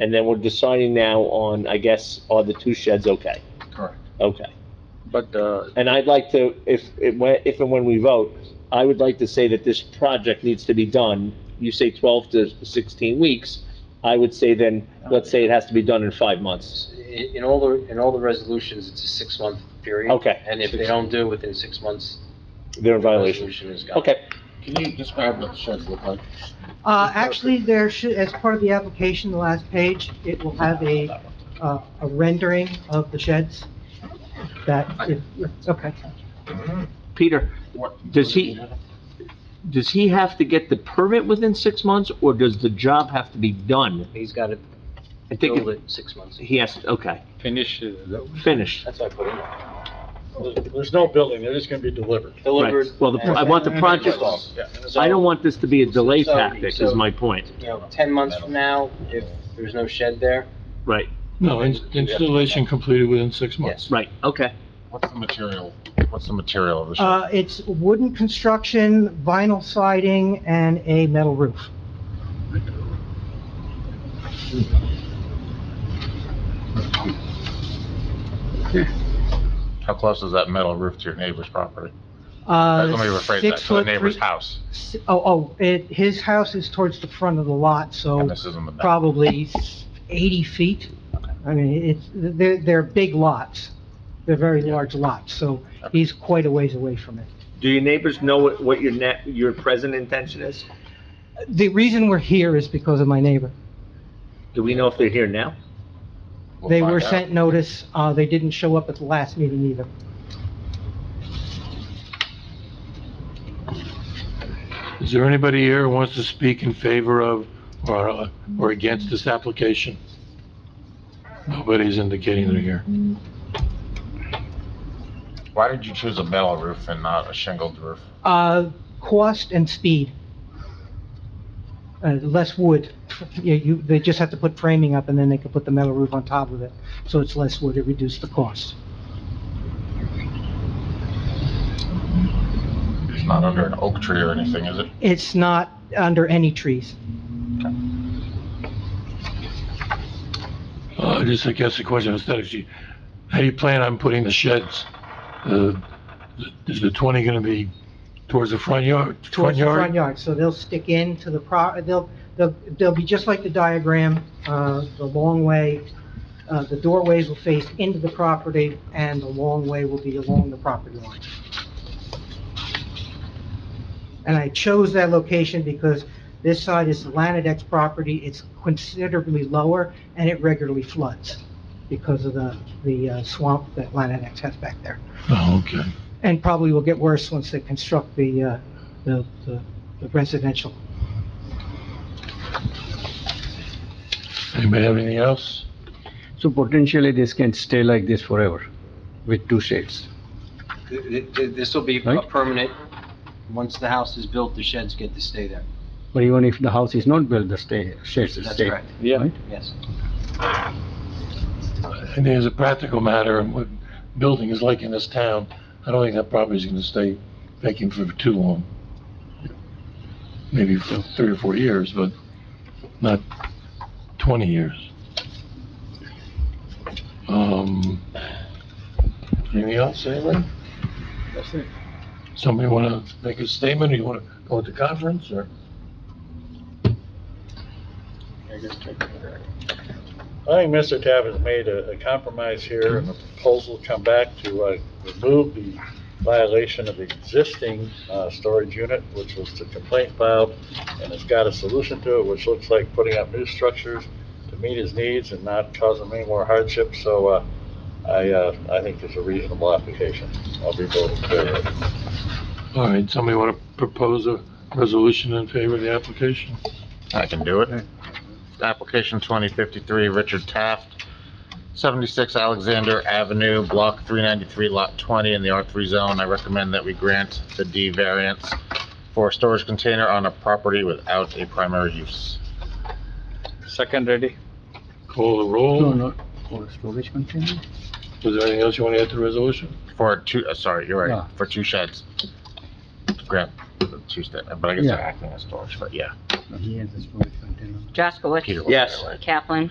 And then we're deciding now on, I guess, are the two sheds okay? Correct. Okay. But, uh, And I'd like to, if, if when- if and when we vote, I would like to say that this project needs to be done. You say 12 to 16 weeks. I would say then, let's say it has to be done in five months. In, in all the, in all the resolutions, it's a six-month period. Okay. And if they don't do it within six months, They're in the violation. resolution is gone. Okay. can you describe what the sheds look like? Uh, actually, there should, as part of the application, the last page, it will have a, uh, a rendering of the sheds that, if- okay. Peter, does he, does he have to get the permit within six months or does the job have to be done? He's got to I think build it- it six months. he has, okay, Finish it. finished. That's why I put it in. There's no building, they're just gonna be delivered. Right. Delivered. Well, the, I want the project, I don't want this to be a delay So- tactic is my point, You know, ten months from now, if there's no shed there, right, No, in- installation completed within six months. right, okay. What's the material, what's the material of the shed? Uh, it's wooden construction, vinyl siding, and a metal roof. How close is that metal roof to your neighbor's property? Uh, Let me rephrase that, six to the foot neighbor's three- house, s- Oh, oh, it, his house is towards the front of the lot, so and this is in the back. probably s- 80 feet. I mean, it's, they're, they're big lots. They're very large lots, so he's quite a ways away from it. Do your neighbors know what, what your net, your present intention is? The reason we're here is because of my neighbor. Do we know if they're here now? We'll They find were out. sent notice, uh, they didn't show up at the last meeting either. Is there anybody here who wants to speak in favor of or, uh, or against this application? Nobody's indicating they're here. Why did you choose a metal roof and not a shingled roof? Uh, cost and speed. Uh, less wood. You, you, they just have to put framing up and then they can put the metal roof on top of it. So it's less wood, it reduced the cost. It's not under an oak tree or anything, is it? It's not under any trees. Uh, just, I guess the question aesthetics, you- how do you plan on putting the sheds? Uh, Is the 20 going to be towards the front yard? towards the front yard, so they'll stick into the pro, they'll, they'll, they'll be just like the diagram, uh, the long way, uh, the doorways will face into the property, and the long way will be along the property line. And I chose that location because this side is the Lanadex property, it's considerably lower, and it regularly floods because of the, the uh, swamp that Lanadex has back there Oh, okay. and probably will get worse once they construct the, uh, the the the residential. Anybody have anything else? So potentially this can stay like this forever with two shades. th- th- this will be a Right. permanent, once the house is built, the sheds get to stay there. But even if the house is not built, the stay, shades will That's stay. correct, Yeah. yes. And as a practical matter, and what building is like in this town, I don't think that property's gonna stay vacant for too long. Maybe for three or four years, but not twenty years. Um, anything else, anybody? That's it. Somebody wanna make a statement, or you wanna go to conference, or? I think Mr. Tabb has made a a compromise here, and the proposal come back to uh, remove the violation of the existing uh, storage unit, which was the complaint filed, and it's got a solution to it, which looks like putting up new structures to meet his needs and not cause him any more hardship, so uh, I, uh, I think it's a reasonable application. I'll be voting for it. All right, somebody wanna propose a resolution in favor of the application? I can do it. Application 2053, Richard Taft, 76 Alexander Avenue, Block 393, Lot 20, in the R3 zone. I recommend that we grant the D variance for a storage container on a property without a primary use. Second ready. Call the roll? No, no, for storage container? Was there anything else you want to add to the resolution? For two, uh, sorry, you're Yeah. right, for two sheds. Grant the two, sta- but I guess they're acting as storage, but yeah. He has a storage container. Jaskowitz. Peter was Yes. there, right? Kaplan.